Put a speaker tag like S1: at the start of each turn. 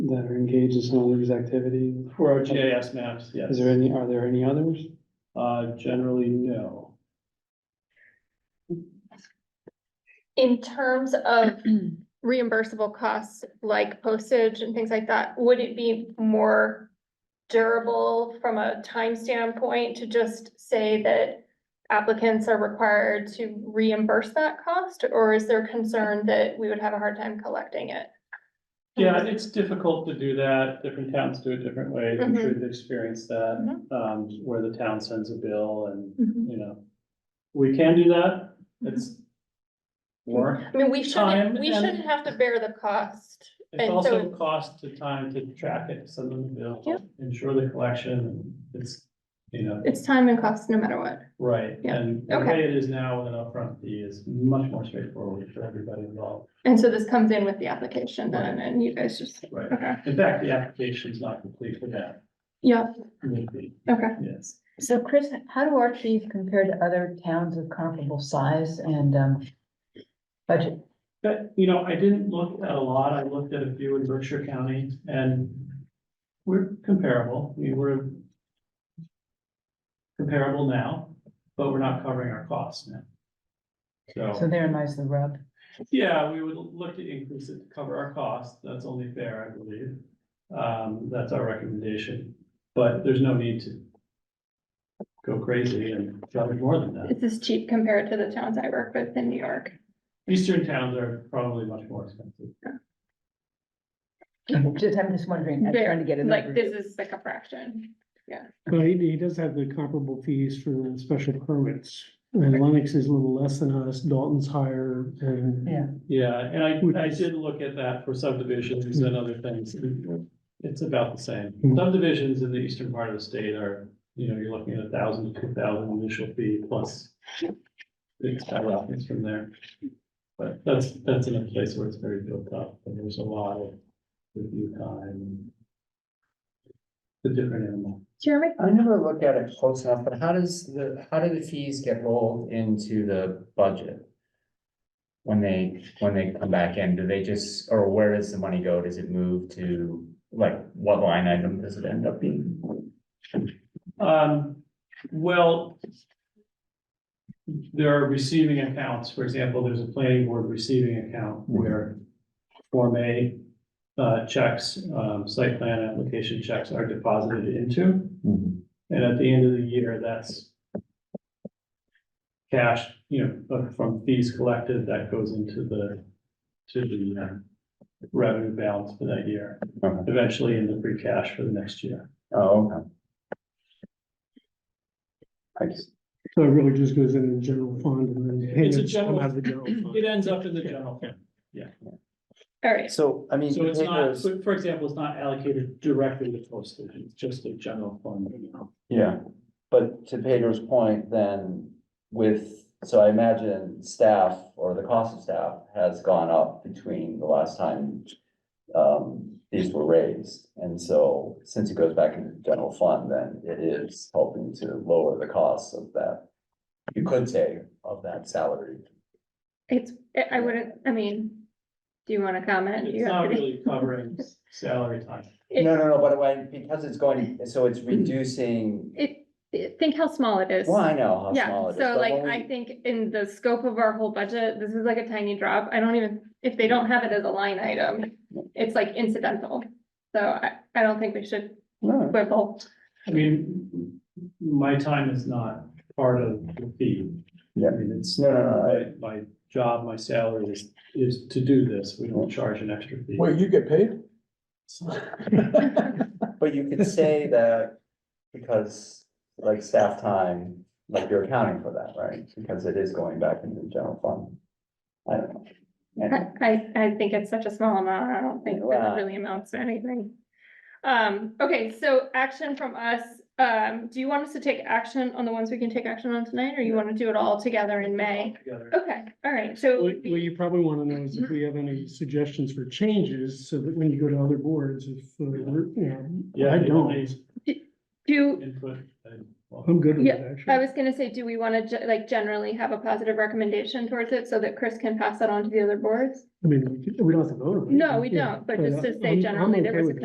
S1: that are engaged in some of these activities?
S2: For our GIS maps, yes.
S1: Is there any, are there any others?
S2: Uh, generally, no.
S3: In terms of reimbursable costs like postage and things like that, would it be more durable from a time standpoint to just say that applicants are required to reimburse that cost? Or is there concern that we would have a hard time collecting it?
S2: Yeah, it's difficult to do that. Different towns do it different ways. I'm
S3: Mm-hmm.
S2: sure you've experienced that, um, where the town sends a bill and, you know. We can do that.
S3: Mm-hmm.
S2: It's more.
S3: I mean, we
S2: Time
S3: shouldn't, we
S2: and-
S3: shouldn't have to bear the cost.
S2: It's
S3: And
S2: also
S3: so-
S2: cost to time to track it, send them the bill,
S3: Yeah.
S2: ensure the collection. It's, you know,
S3: It's time and cost no matter what.
S2: right.
S3: Yeah,
S2: And the
S3: okay.
S2: way it is now with an upfront fee is much more straightforward for everybody involved.
S3: And so this comes in with the application then and you guys just,
S2: Right.
S3: okay,
S2: In fact, the application's not complete for that.
S3: yeah,
S2: would be,
S3: okay.
S2: Yes.
S4: So Chris, how do our fees compare to other towns of comparable size and um budget?
S2: But, you know, I didn't look at a lot. I looked at a few in Berkshire County and we're comparable. We were comparable now, but we're not covering our costs now.
S4: So
S2: So,
S4: there lies the rub.
S2: yeah, we would look to increase it to cover our costs. That's only fair, I believe. Um, that's our recommendation, but there's no need to go crazy and charge more than that.
S3: This is cheap compared to the towns I work with in New York.
S2: Eastern towns are probably much more expensive.
S4: Just I'm just wondering, I'm trying to get a
S3: Mm-hmm. Like,
S4: number.
S3: this is like a fraction.
S1: Well, Uh, he, he does have the comparable fees for the special permits. And Lennox is a little less than us, Dalton's higher and.
S4: Yeah.
S2: Yeah, and
S1: Which
S2: I, I
S1: is-
S2: did look at that for subdivisions and other things. It's about the same.
S1: Hmm.
S2: Subdivisions in the eastern part of the state are, you know, you're looking at a thousand, two thousand initial fee plus. It's skyrockets from there. But that's, that's in a place where it's very built up and there's a lot of review time. and The different animal.
S3: Jeremy?
S5: I never look at it close enough, but how does the, how do the fees get rolled into the budget? When they, when they come back in, do they just, or where does the money go? Does it move to, like, what line item does it end up being?
S2: Um, well. There are receiving accounts, for example, there's a planning board receiving account where Form A. Uh, checks, um, site plan application checks are deposited into,
S5: Mm-hmm.
S2: and at the end of the year, that's. Cash, you know, but from fees collected, that goes into the, to the uh, revenue balance for that year.
S5: Okay.
S2: Eventually into free cash for the next year.
S5: Oh, okay. Thanks.
S1: So it really just goes in the general fund and then.
S2: It's a
S1: payments come out of the general fund.
S2: It ends up in the general fund.
S3: All right,
S5: So, I mean.
S2: So it's not,
S5: potatoes-
S2: for for example, it's not allocated directly to postage, it's just a general fund.
S5: Yeah, but to Pedro's point, then with, so I imagine staff or the cost of staff has gone up between the last time. Um, these were raised, and so since it goes back into the general fund, then it is helping to lower the costs of that. You could say of that salary.
S3: it's, I wouldn't, I mean, do you want to comment?
S2: It's
S3: You
S2: not
S3: have to-
S2: really covering salary time.
S3: It- Mm.
S5: No, no, no, but when, because it's going, so it's reducing,
S3: It, it- think how small it is.
S5: well, I know how small
S3: Yeah,
S5: it is.
S3: so
S5: but
S3: like,
S5: when we-
S3: I think in the scope of our whole budget, this is like a tiny drop. I don't even, if they don't have it as a line item, it's like incidental. So I, I don't think we should
S5: No,
S3: quibble.
S2: I mean, my time is not part of the fee.
S5: Yeah.
S2: I mean, it's,
S5: No, no, no, I-
S2: my, my job, my salary is, is to do this, we don't charge an extra fee.
S6: Well, you get paid?
S5: But you could say that because like staff time, like you're accounting for that, right? Because it is going back into the general fund. I don't know.
S3: I, I, I think it's such a small amount, I don't think that
S5: Wow.
S3: really amounts to anything. Um, okay, so action from us, um, do you want us to take action on the ones we can take action on tonight, or you wanna do it all together in May?
S2: Together.
S3: Okay, all right, so. it
S1: What,
S3: would
S1: what
S3: be-
S1: you probably want to know is if we have any suggestions for changes, so that when you go to other boards, if, uh, we're, you know,
S2: Yeah,
S1: I
S2: if you
S1: don't,
S2: need
S3: Do,
S2: Input. and-
S1: I'm good with
S3: Yeah,
S1: it,
S3: I
S1: actually.
S3: was gonna say, do we wanna ge- like generally have a positive recommendation towards it, so that Chris can pass that on to the other boards?
S1: I mean, we don't have to vote on it.
S3: No, we don't, but just to say
S1: I'm- I'm
S3: generally, there
S1: okay
S3: was a
S1: with